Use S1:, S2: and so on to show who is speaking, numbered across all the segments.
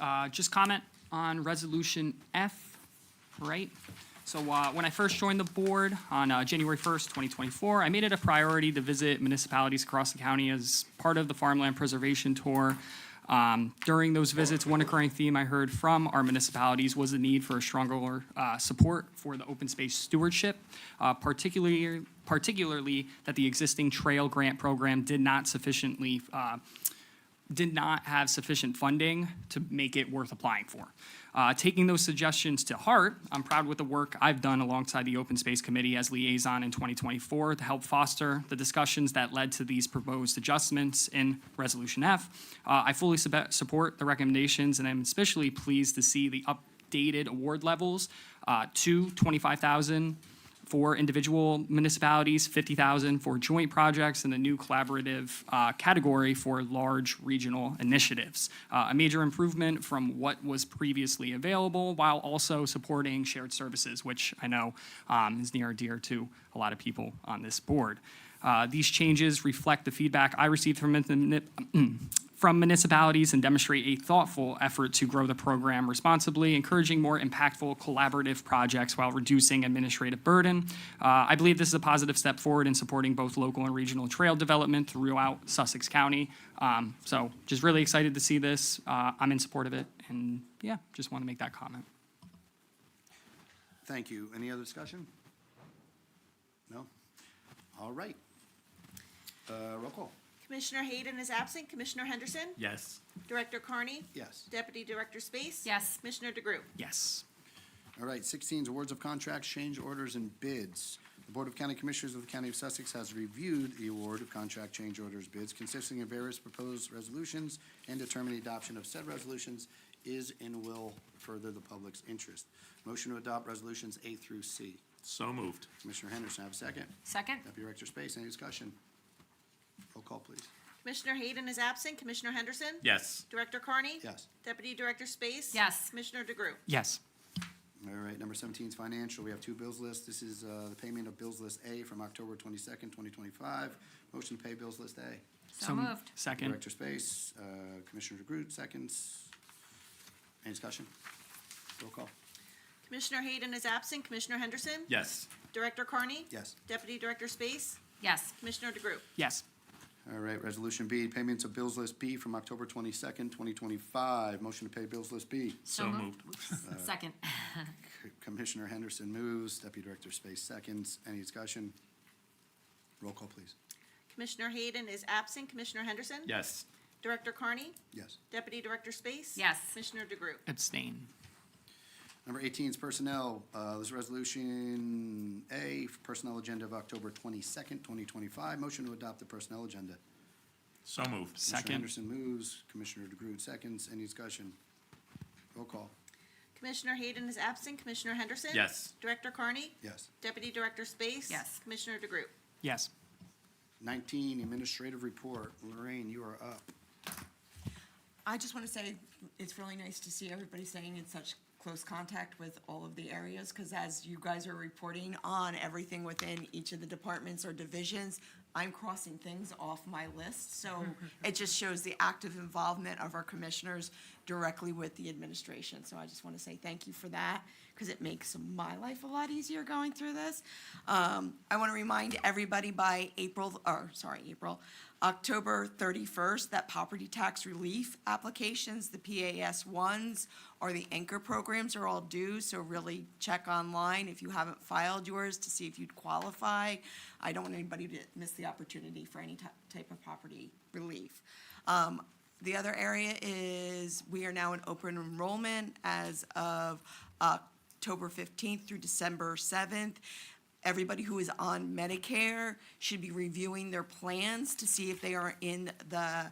S1: uh, just comment on Resolution F, right? So uh, when I first joined the board on uh, January 1st, 2024, I made it a priority to visit municipalities across the county as part of the Farmland Preservation Tour. Um, During those visits, one recurring theme I heard from our municipalities was the need for stronger uh, support for the open space stewardship, uh, particularly, particularly that the existing trail grant program did not sufficiently uh, did not have sufficient funding to make it worth applying for. Uh, taking those suggestions to heart, I'm proud with the work I've done alongside the Open Space Committee as liaison in 2024 to help foster the discussions that led to these proposed adjustments in Resolution F. Uh, I fully sub- support the recommendations, and I'm especially pleased to see the updated award levels uh, to 25,000 for individual municipalities, 50,000 for joint projects, and the new collaborative uh, category for large regional initiatives. Uh, A major improvement from what was previously available, while also supporting shared services, which I know um, is near and dear to a lot of people on this board. Uh, These changes reflect the feedback I received from the- from municipalities and demonstrate a thoughtful effort to grow the program responsibly, encouraging more impactful collaborative projects while reducing administrative burden. Uh, I believe this is a positive step forward in supporting both local and regional trail development throughout Sussex County. Um, So just really excited to see this. Uh, I'm in support of it, and yeah, just want to make that comment.
S2: Thank you. Any other discussion? No? All right. Uh, Roll call.
S3: Commissioner Hayden is absent. Commissioner Henderson?
S4: Yes.
S3: Director Carney?
S2: Yes.
S3: Deputy Director Space?
S5: Yes.
S3: Commissioner DeGroot?
S1: Yes.
S2: All right, 16 is awards of contracts, change orders, and bids. The Board of County Commissioners of the County of Sussex has reviewed the award of contract change orders bids consisting of various proposed resolutions and determined the adoption of said resolutions is and will further the public's interest. Motion to adopt resolutions A through C.
S4: So moved.
S2: Commissioner Henderson, have a second.
S5: Second?
S2: Deputy Director Space, any discussion? Roll call, please.
S3: Commissioner Hayden is absent. Commissioner Henderson?
S4: Yes.
S3: Director Carney?
S2: Yes.
S3: Deputy Director Space?
S5: Yes.
S3: Commissioner DeGroot?
S1: Yes.
S2: All right, number seventeen is financial. We have two bills lists. This is uh, the payment of bills list A from October twenty-second, twenty twenty-five. Motion to pay bills list A.
S5: So moved.
S1: Second.
S2: Director Space, uh, Commissioner DeGroot, seconds. Any discussion? Roll call.
S3: Commissioner Hayden is absent. Commissioner Henderson?
S4: Yes.
S3: Director Carney?
S2: Yes.
S3: Deputy Director Space?
S5: Yes.
S3: Commissioner DeGroot?
S1: Yes.
S2: All right, resolution B, payments of bills list B from October twenty-second, twenty twenty-five. Motion to pay bills list B.
S4: So moved.
S5: Whoops. Second?
S2: C- Commissioner Henderson moves, Deputy Director Space seconds. Any discussion? Roll call, please.
S3: Commissioner Hayden is absent. Commissioner Henderson?
S4: Yes.
S3: Director Carney?
S2: Yes.
S3: Deputy Director Space?
S5: Yes.
S3: Commissioner DeGroot?
S1: Abstain.
S2: Number 18 is personnel. Uh, This is Resolution A, Personnel Agenda of October 22nd, 2025. Motion to adopt the personnel agenda.
S4: So moved.
S2: Commissioner
S1: Second.
S2: Anderson moves, Commissioner DeGroot seconds. Any discussion? Roll call.
S3: Commissioner Hayden is absent. Commissioner Henderson?
S4: Yes.
S3: Director Carney?
S2: Yes.
S3: Deputy Director Space?
S5: Yes.
S3: Commissioner DeGroot?
S1: Yes.
S2: 19, Administrative Report. Lorraine, you are up.
S6: I just want to say, it's really nice to see everybody staying in such close contact with all of the areas, because as you guys are reporting on everything within each of the departments or divisions, I'm crossing things off my list, so it just shows the active involvement of our commissioners directly with the administration. So I just want to say thank you for that, because it makes my life a lot easier going through this. Um, I want to remind everybody by April, or, sorry, April, October thirty-first, that property tax relief applications, the PAS ones, or the anchor programs are all due, so really check online if you haven't filed yours to see if you'd qualify. I don't want anybody to miss the opportunity for any ty- type of property relief. Um, the other area is, we are now in open enrollment as of October fifteenth through December seventh everybody who is on Medicare should be reviewing their plans to see if they are in the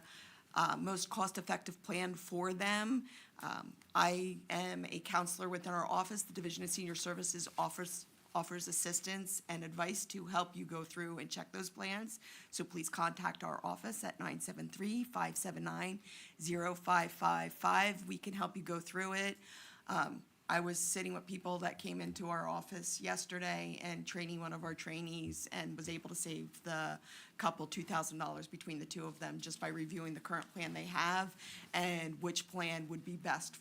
S6: uh, most cost-effective plan for them. Um, I am a counselor within our office. The Division of Senior Services offers, offers assistance and advice to help you go through and check those plans. So please contact our office at 973-579-0555. We can help you go through it. Um, I was sitting with people that came into our office yesterday and training one of our trainees and was able to save the couple two thousand dollars between the two of them just by reviewing the current plan they have and which plan would be best